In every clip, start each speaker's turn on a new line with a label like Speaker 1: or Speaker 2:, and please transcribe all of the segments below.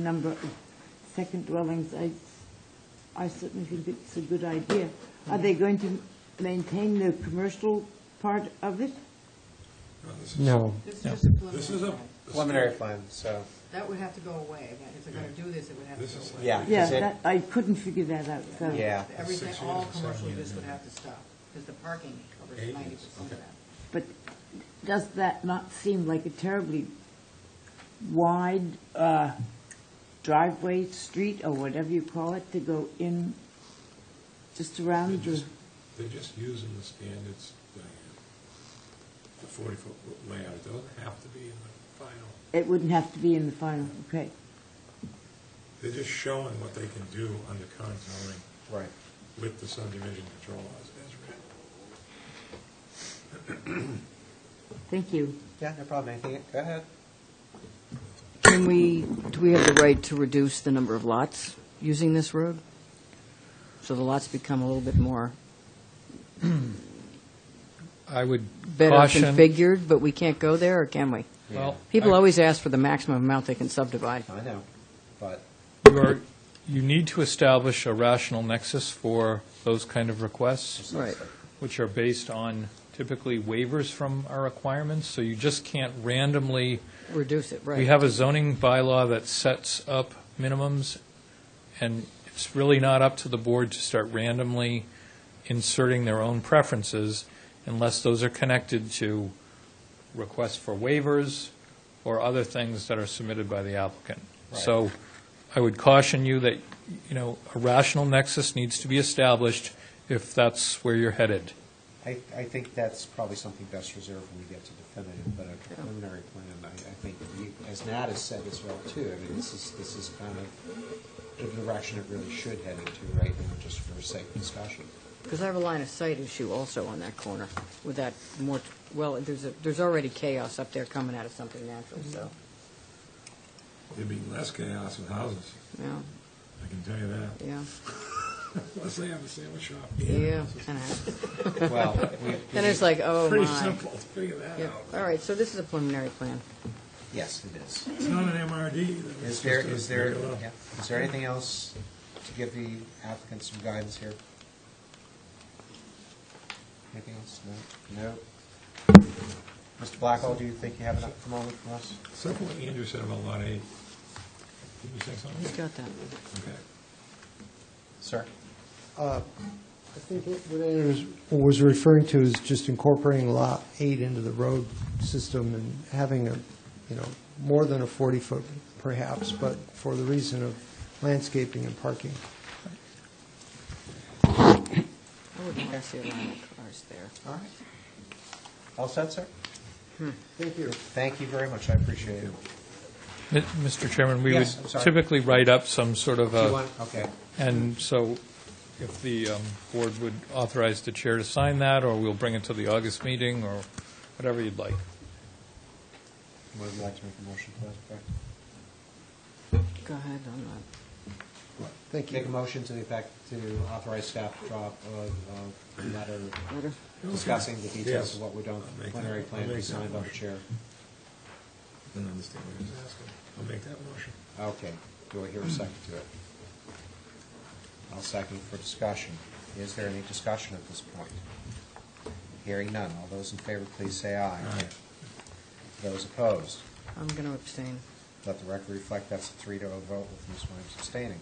Speaker 1: number of second dwellings, I, I certainly think it's a good idea. Are they going to maintain the commercial part of it?
Speaker 2: This is-
Speaker 3: No,
Speaker 4: This is just a
Speaker 2: This is a.
Speaker 4: preliminary.
Speaker 5: preliminary plan, so,
Speaker 4: That would have to go away, that if they're gonna do this, it would have
Speaker 2: This is
Speaker 4: to go away.
Speaker 5: yeah.
Speaker 1: Yeah,
Speaker 5: is it-
Speaker 1: that, I couldn't figure that out, so.
Speaker 5: Yeah.
Speaker 4: Everything,
Speaker 2: Six
Speaker 4: all
Speaker 2: years, seven
Speaker 4: commercial
Speaker 2: years,
Speaker 4: use would have to stop, because the parking covers
Speaker 2: Eight
Speaker 4: ninety
Speaker 2: years,
Speaker 4: percent of
Speaker 2: okay.
Speaker 4: that.
Speaker 1: But does that not seem like a terribly wide uh, driveway, street, or whatever you call it, to go in just around
Speaker 2: They're
Speaker 1: the,
Speaker 2: just- they're just using the standards, Diane. The 40-foot layout, it doesn't have to be in the final.
Speaker 1: it wouldn't have to be in the final, okay?
Speaker 2: They're just showing what they can do under current zoning
Speaker 5: Right.
Speaker 2: with the subdivision control laws as written.
Speaker 1: Thank you.
Speaker 5: Yeah, no problem, anything, go ahead.
Speaker 6: Can we, do we have the right to reduce the number of lots using this road? So the lots become a little bit more
Speaker 3: I would
Speaker 6: better
Speaker 3: caution.
Speaker 6: configured, but we can't go there, or can we?
Speaker 3: Well,
Speaker 6: People
Speaker 3: I-
Speaker 6: always ask for the maximum amount they can subdivide.
Speaker 5: I know, but,
Speaker 3: You are, you need to establish a rational nexus for those kind of requests,
Speaker 6: Right.
Speaker 3: which are based on typically waivers from our requirements, so you just can't randomly,
Speaker 6: Reduce it, right.
Speaker 3: we have a zoning bylaw that sets up minimums, and it's really not up to the board to start randomly inserting their own preferences unless those are connected to requests for waivers or other things that are submitted by the applicant.
Speaker 5: Right.
Speaker 3: So I would caution you that, you know, a rational nexus needs to be established if that's where you're headed.
Speaker 5: I, I think that's probably something best reserved when we get to definitive, but a preliminary plan, I, I think, you- as Nat has said as well too, I mean, this is, this is kind of the direction it really should head into right now, just for sake of discussion.
Speaker 6: Because I have a line of sight issue also on that corner with that more, well, there's, a- there's already chaos up there coming out of something natural, so,
Speaker 2: There'd be less chaos with houses,
Speaker 4: Mm-hmm.
Speaker 6: yeah,
Speaker 2: I can tell you that,
Speaker 6: yeah,
Speaker 2: unless they have a sandwich shop.
Speaker 6: yeah. kind of.
Speaker 5: Well, we.
Speaker 6: Then it's like, oh,
Speaker 2: Pretty
Speaker 6: my.
Speaker 2: simple to figure that
Speaker 6: Yep.
Speaker 2: out.
Speaker 6: All right, so this is a preliminary plan.
Speaker 5: Yes, it is.
Speaker 2: It's not an MRD. either. It's
Speaker 5: Is there,
Speaker 2: just a
Speaker 5: is there,
Speaker 2: regular-
Speaker 5: yeah. is there anything else to give the applicant some guidance here? Anything else? No? No? Mr. Blackwell, do you think you have enough from all from us?
Speaker 2: Except for what Andrew said about Lot 8. Did you say something?
Speaker 6: Who's got that?
Speaker 2: Okay.
Speaker 5: Sir?
Speaker 7: I think what what Ann was- was referring to is just incorporating Lot 8 into the road system and having a, you know, more than a 40-foot perhaps, but for the reason of landscaping and parking.
Speaker 6: I would want to see a line of cars there.
Speaker 5: All right. Hmm. All set, sir?
Speaker 7: Thank you.
Speaker 5: Thank you very much, I appreciate it.
Speaker 3: Mi- Mr. Chairman, we would
Speaker 5: Yes, I'm sorry.
Speaker 3: typically write up some sort of
Speaker 5: Do
Speaker 3: a...
Speaker 5: you want, okay,
Speaker 3: And so if the um, board would authorize the chair to sign that, or we'll bring it to the August meeting, or whatever you'd like.
Speaker 5: would you like to make a motion to that effect?
Speaker 6: Go ahead, I'm not,
Speaker 7: Thank
Speaker 5: Make a
Speaker 7: you.
Speaker 5: motion to the effect to authorize staff to drop a, a letter
Speaker 6: letter.
Speaker 5: discussing the details
Speaker 2: Yes.
Speaker 5: of what we're
Speaker 2: I'll
Speaker 5: doing,
Speaker 2: make that-
Speaker 5: preliminary plan
Speaker 2: I'll
Speaker 5: to be
Speaker 2: make that
Speaker 5: signed by the
Speaker 2: motion.
Speaker 5: chair.
Speaker 2: Didn't understand what he was asking. I'll make that motion.
Speaker 5: Okay, do I hear a second to it? I'll second for discussion. Is there any discussion at this point? Hearing none, all those in favor, please say aye.
Speaker 2: Aye.
Speaker 5: Those opposed,
Speaker 6: I'm going to abstain.
Speaker 5: let the record reflect that's a three to a vote with Ms. Williams abstaining.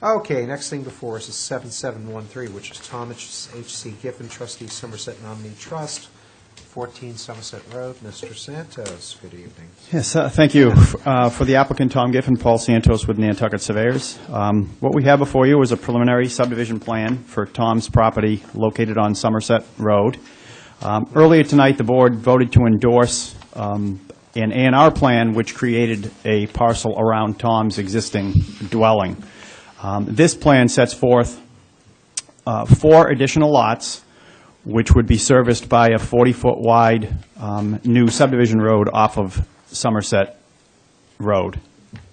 Speaker 5: Okay, next thing before us is 7713, which is Thomas H.C. Giffen, trustee Somerset Nominee Trust, 14 Somerset Road. Mr. Santos, good evening.
Speaker 8: Yes, uh, thank you. Uh, For the applicant, Tom Giffen, Paul Santos with Nantucket Surveyors. Um, What we have before you is a preliminary subdivision plan for Tom's property located on Somerset Road. Um, Earlier tonight, the board voted to endorse um, an A&R plan which created a parcel around Tom's existing dwelling. Um, This plan sets forth uh, four additional lots, which would be serviced by a 40-foot wide um, new subdivision road off of Somerset Road,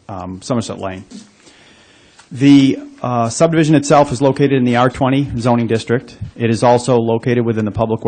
Speaker 8: um, Somerset Lane. The uh, subdivision itself is located in the R20 zoning district. It is also located within the public